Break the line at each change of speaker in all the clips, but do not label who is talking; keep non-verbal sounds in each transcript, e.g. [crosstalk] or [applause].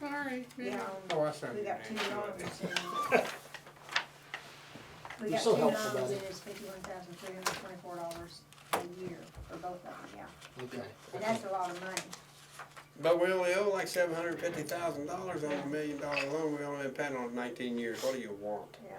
Sorry.
you know,
Oh, I sent
we
you
got two dollars in.
[laughs]
We
You're
got
so
two
helpful,
dollars,
buddy.
it is fifty-one thousand three hundred twenty-four dollars a year for both of them, yeah,
Okay.
and that's a lot of money.
But we only owe like seven hundred fifty thousand dollars on a million dollar loan, we only been paying on it nineteen years, what do you want?
Yeah.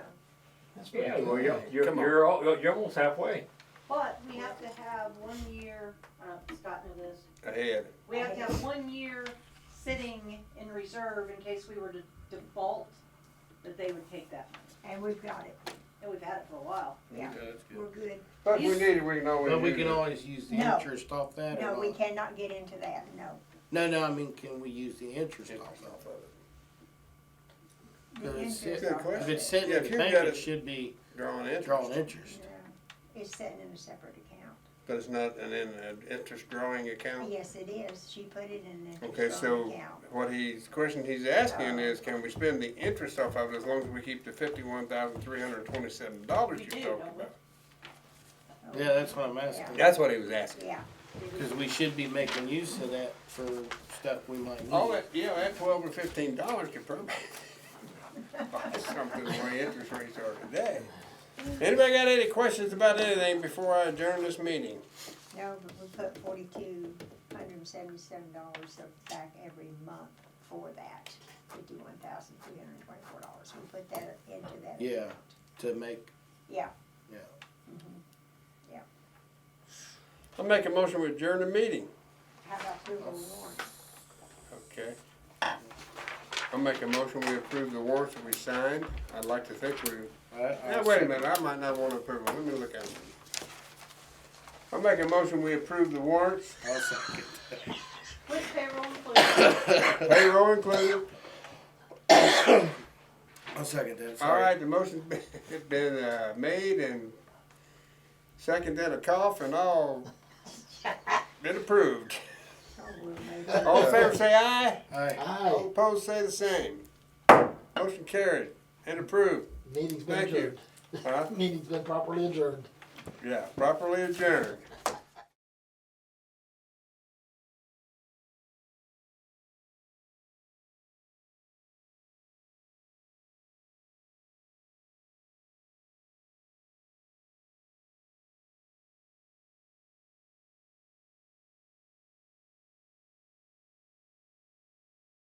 That's pretty
Yeah, well, you're,
good.
you're,
Come on.
you're, al- you're- you're almost halfway.
But we have to have one year, uh, Scott knew this,
Ahead,
we have to have one year sitting in reserve in case we were to default, that they would take that money.
And we've got it,
And we've had it for a while.
yeah, we're good.
but we need it, we can always.
But we
use
can
it.
always use the
No.
interest off that or
No, we
not?
cannot get into that, no.
No, no, I mean, can we use the interest
Interest
off
off
that?
of
The
Good
interest
Good
on
question.
If
it,
it's sitting
Yeah,
in the
if you've
bank,
got
it
it-
should be
it. Drawing interest,
drawing interest.
yeah, It's sitting in a separate account.
but it's not an, in- an interest drawing account.
Yes, it is, she put it in an
Oh. Okay,
interest on
so
account.
what he's, question he's asking is, can we spend the interest off of it as long as we keep the fifty-one thousand three hundred twenty-seven dollars
We
you
do,
talked
don't we?
about?
Oh,
Yeah, that's what I'm asking.
That's what he was asking.
Yeah,
Cause we should be making use of that for stuff we might need.
Oh, that, yeah, that twelve or fifteen dollars could probably [laughs] buy something the way interest rates are today. Anybody got any questions about anything before I adjourn this meeting?
no, but we put forty-two hundred and seventy-seven dollars back every month for that, fifty-one thousand three hundred and twenty-four dollars, we put that into that account.
Yeah. To make,
Yeah,
yeah.
I'll make a motion to adjourn the meeting.
how about approval of warrants?
Okay. I'll make a motion, we approve the warrants that we signed. I'd like to think we, now, wait a minute, I might not want to approve them. Let me look at them. I'll make a motion, we approve the [laughs] warrants,
I'll second.
With payroll included.
payroll included.
I'll second that,
All
sorry.
right, the [laughs] motion's been, it's been, uh, made and seconded a cough and all, been approved.
Oh, we'll make it.
All in favor, say aye.
Aye.
All
Aye,
opposed, say the same. Motion carried and approved.
meeting's been
Thank you.
adjourned.
Huh?
Meeting's been properly adjourned.
Yeah, properly adjourned.